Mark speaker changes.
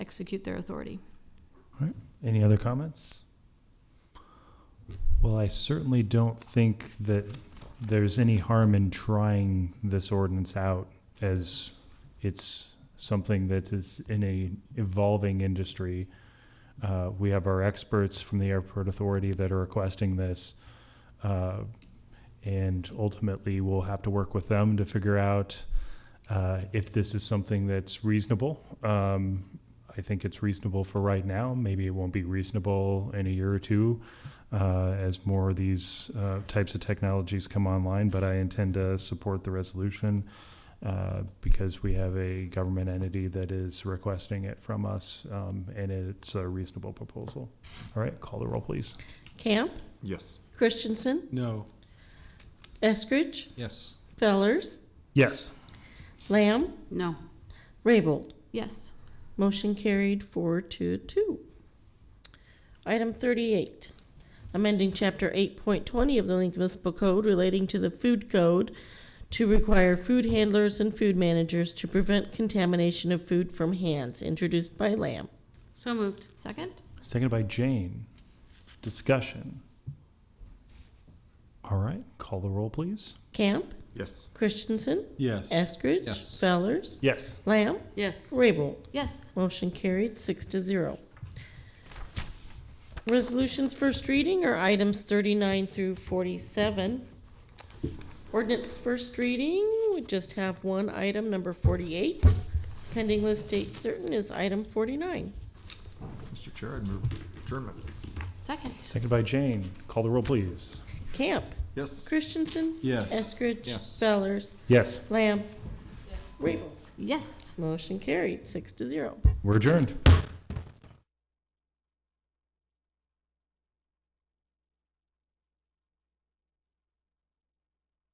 Speaker 1: execute their authority.
Speaker 2: Any other comments? Well, I certainly don't think that there's any harm in trying this ordinance out as it's something that is in a evolving industry. Uh, we have our experts from the airport authority that are requesting this. Uh, and ultimately, we'll have to work with them to figure out uh, if this is something that's reasonable. Um, I think it's reasonable for right now. Maybe it won't be reasonable in a year or two uh, as more of these uh, types of technologies come online. But I intend to support the resolution uh, because we have a government entity that is requesting it from us, um, and it's a reasonable proposal. All right, call the roll, please.
Speaker 3: Camp,
Speaker 4: Yes.
Speaker 3: Christensen,
Speaker 5: No.
Speaker 3: Eskridge,
Speaker 5: Yes.
Speaker 3: Fellers,
Speaker 2: Yes.
Speaker 3: Lamb,
Speaker 1: No.
Speaker 3: Raybold.
Speaker 1: Yes.
Speaker 3: Motion carried four to two. Item thirty-eight, amending chapter eight point twenty of the Lincoln Municipal Code relating to the food code to require food handlers and food managers to prevent contamination of food from hands, introduced by Lamb.
Speaker 1: So moved. Second?
Speaker 2: Seconded by Jane. Discussion. All right, call the roll, please.
Speaker 3: Camp,
Speaker 4: Yes.
Speaker 3: Christensen,
Speaker 5: Yes.
Speaker 3: Eskridge.
Speaker 5: Yes.
Speaker 3: Fellers,
Speaker 2: Yes.
Speaker 3: Lamb,
Speaker 1: Yes.
Speaker 3: Raybold.
Speaker 1: Yes.
Speaker 3: Motion carried, six to zero. Resolutions first reading are items thirty-nine through forty-seven. Ordinance first reading, we just have one item, number forty-eight. Pending list date certain is item forty-nine.
Speaker 4: Mr. Chair, I'd move adjournment.
Speaker 1: Second?
Speaker 2: Seconded by Jane. Call the roll, please.
Speaker 3: Camp,
Speaker 4: Yes.
Speaker 3: Christensen.
Speaker 5: Yes.
Speaker 3: Eskridge.
Speaker 5: Yes.
Speaker 3: Fellers,
Speaker 2: Yes.
Speaker 3: Lamb. Rabel.
Speaker 1: Yes.
Speaker 3: Motion carried, six to zero.
Speaker 2: We're adjourned.